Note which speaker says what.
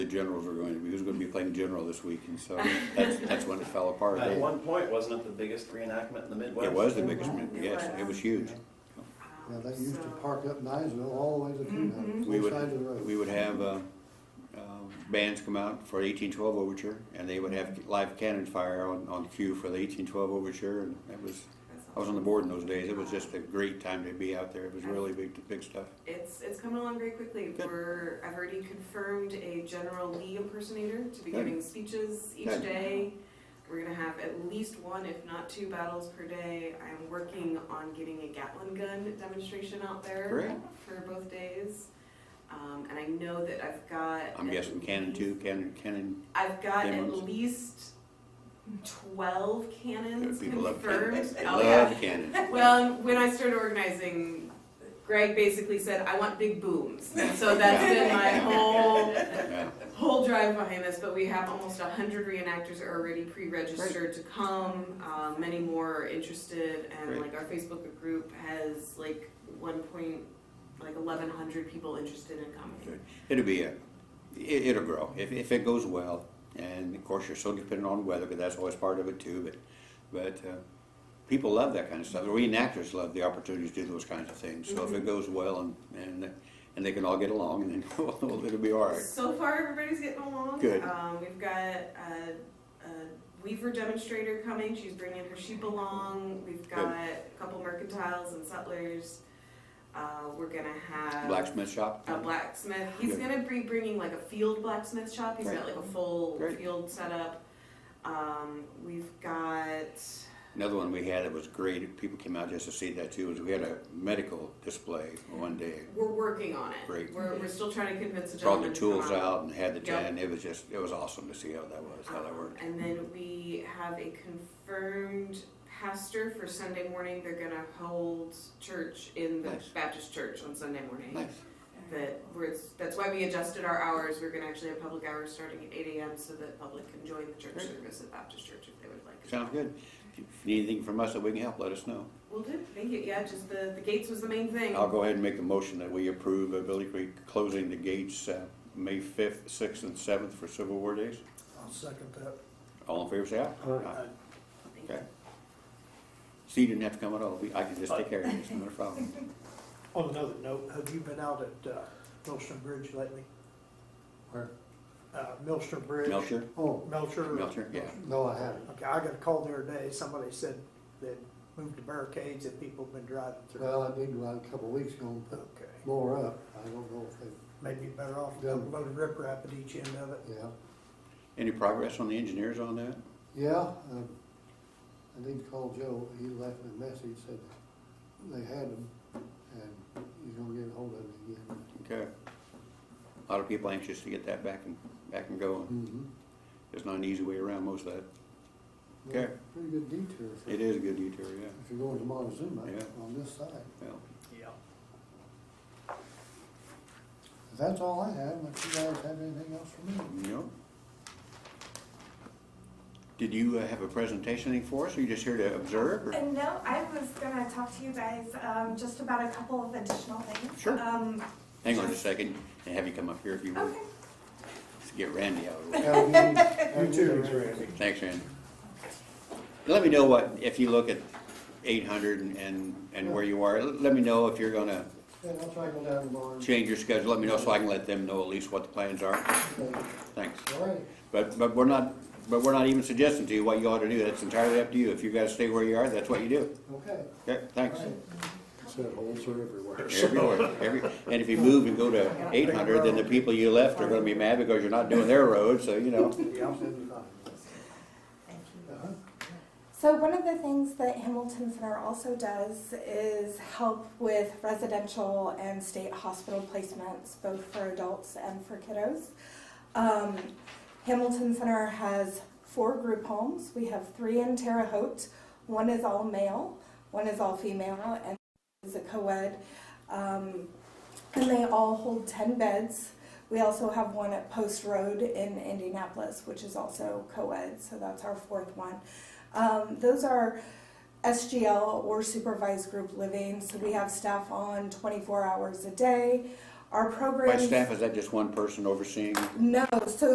Speaker 1: generals were going to be, who's going to be playing general this week, and so that's, that's when it fell apart.
Speaker 2: At
Speaker 1: It
Speaker 2: one point, wasn't it the biggest reenactment in the Midwest?
Speaker 1: was the biggest, yes, it was huge.
Speaker 3: Yeah, they used to park up Niceville all the way to Kuna,
Speaker 1: We
Speaker 3: both
Speaker 1: would,
Speaker 3: sides of the road.
Speaker 1: we would have, uh, uh, bands come out for eighteen twelve overture, and they would have live cannon fire on, on cue for the eighteen twelve overture, and that was, I was on the board in those days, it was just a great time to be out there, it was really big, big stuff.
Speaker 4: It's, it's coming along very quickly.
Speaker 1: Good.
Speaker 4: We're, I've already confirmed a general Lee impersonator to be
Speaker 1: Good.
Speaker 4: giving speeches each
Speaker 1: Good.
Speaker 4: day. We're gonna have at least one, if not two battles per day. I'm working on getting a Gatlin gun demonstration out
Speaker 1: Great.
Speaker 4: there for both days. Um, and I know that I've got.
Speaker 1: I'm
Speaker 4: at
Speaker 1: guessing cannon
Speaker 4: least-
Speaker 1: two, cannon, cannon,
Speaker 4: I've got at
Speaker 1: Demos.
Speaker 4: least twelve cannons
Speaker 1: people love cannon,
Speaker 4: confirmed.
Speaker 1: they
Speaker 4: Oh, yeah.
Speaker 1: love cannon.
Speaker 4: Well, when I started organizing, Greg basically said, "I want big booms," and so that's been my whole
Speaker 1: Yeah.
Speaker 4: whole drive behind this. But we have almost hundred reenactors are already pre-registered to come. Um, many more are interested, and
Speaker 1: Great.
Speaker 4: like our Facebook group has like one point like eleven hundred people interested in coming.
Speaker 1: Good. It'll be a, it, it'll grow if, if it goes well. And of course, you're so dependent on weather, but that's always part of it too. But, but uh, people love that kind of stuff. The reenactors love the opportunity to do those kinds of things. So
Speaker 4: Mm-hmm.
Speaker 1: if it goes well and, and and they can all get along, and then well, it'll be all right.
Speaker 4: So far, everybody's getting along.
Speaker 1: Good.
Speaker 4: Um, we've got a, a weaver demonstrator coming. She's bringing her sheep along. We've got a couple mercantiles and settlers. Uh, we're gonna have
Speaker 1: Blacksmith shop.
Speaker 4: a blacksmith. He's
Speaker 1: Good.
Speaker 4: gonna be bringing like a field blacksmith shop. He's got
Speaker 1: Great.
Speaker 4: like a full
Speaker 1: Great.
Speaker 4: field setup. Um, we've got
Speaker 1: Another one we had that was great. People came out just to see that too. Was we had a medical display one day.
Speaker 4: we're working on it.
Speaker 1: Great.
Speaker 4: We're, we're still trying to convince a
Speaker 1: Brought
Speaker 4: gentleman
Speaker 1: the
Speaker 4: to come
Speaker 1: tools out and had the
Speaker 4: Yep.
Speaker 1: tent. It was just it was awesome to see how that was how that worked.
Speaker 4: And then we have a confirmed pastor for Sunday morning. They're gonna hold church in the
Speaker 1: Nice.
Speaker 4: Baptist church on Sunday morning.
Speaker 1: Nice.
Speaker 4: That we're, that's why we adjusted our hours. We're gonna actually have public hours starting at eight AM so that public can join the church
Speaker 1: Great.
Speaker 4: service at Baptist Church if they would like.
Speaker 1: Sounds good. If you need anything from us that we can help, let us know.
Speaker 4: Well, good, thank you. Yeah, just the, the gates was the main thing.
Speaker 1: I'll go ahead and make a motion that we approve of Billy Creek closing the gates uh, May 5th, 6th, and 7th for Civil War days.
Speaker 3: I'll second that.
Speaker 1: All in favor, say aye. Aye.
Speaker 5: Uh,
Speaker 4: Thank you.
Speaker 1: Okay. So you didn't have to come at all. We- I can just take care of it. It's not a problem.
Speaker 5: On another note, have you been out at uh, Milton Bridge lately?
Speaker 3: Where?
Speaker 5: Uh, Milton Bridge?
Speaker 1: Melcher?
Speaker 3: Oh,
Speaker 5: Melcher?
Speaker 1: Melcher, yeah.
Speaker 3: no, I haven't.
Speaker 5: Okay, I got a call the other day, somebody said they'd moved the barricades and people have been driving through.
Speaker 3: Well, I did go out a couple of weeks ago and put
Speaker 5: Okay,
Speaker 3: more up. I don't know if they,
Speaker 5: maybe better off to
Speaker 3: Yeah.
Speaker 5: load of riprap at each end of it.
Speaker 3: yeah.
Speaker 1: Any progress on the engineers on that?
Speaker 3: Yeah, um, I did call Joe. He left me a message, said they had them and he's gonna get hold of me again.
Speaker 1: Okay. A lot of people anxious to get that back and, back and going.
Speaker 3: Mhm.
Speaker 1: There's not an easy way around most of that. Okay.
Speaker 3: Pretty good detour. for-
Speaker 1: It is a good detour, yeah.
Speaker 3: If you're going to Montezuma
Speaker 1: Yeah.
Speaker 3: on this side.
Speaker 1: Well,
Speaker 5: Yeah.
Speaker 3: That's all I have, unless you guys have anything else for me.
Speaker 1: No. Did you uh, have a presentation thing for us, or you just here to observe? or-
Speaker 6: And no, I was gonna talk to you guys um, just about a couple of additional things.
Speaker 1: Sure.
Speaker 6: Um,
Speaker 1: Hang on a second, and have you come up here if you would,
Speaker 6: okay.
Speaker 1: to get Randy out of the way.
Speaker 3: You
Speaker 1: Thanks, Randy. Let me know what, if you look at eight hundred and, and and where you are, l- let me know if you're gonna
Speaker 3: Yeah, I'll try to go down tomorrow.
Speaker 1: change your schedule, let me know so I can let them know at least what the plans are. Thanks.
Speaker 3: All right.
Speaker 1: But, but we're not, but we're not even suggesting to you what you ought to do, that's entirely up to you. If you gotta stay where you are, that's what you do.
Speaker 3: Okay.
Speaker 1: Okay, thanks.
Speaker 3: Said holes are everywhere.
Speaker 1: Everywhere, every, and if you move and go to eight hundred, then the people you left are gonna be mad because you're not doing their road, so you know.
Speaker 5: Yeah.
Speaker 3: Uh-huh.
Speaker 6: So one of the things that Hamilton Center also does is help with residential and state hospital placements, both for adults and for kiddos. Um, Hamilton Center has four group homes. We have three in Terre Haute. One is all male, one is all female, and is a co-ed. Um, and they all hold 10 beds. We also have one at Post Road in Indianapolis, which is also co-ed, so that's our fourth one. Um, those are SGL or supervised group living, so we have staff on 24 hours a day. Our
Speaker 1: By
Speaker 6: programs.
Speaker 1: staff, is that just one person overseeing?
Speaker 6: No, so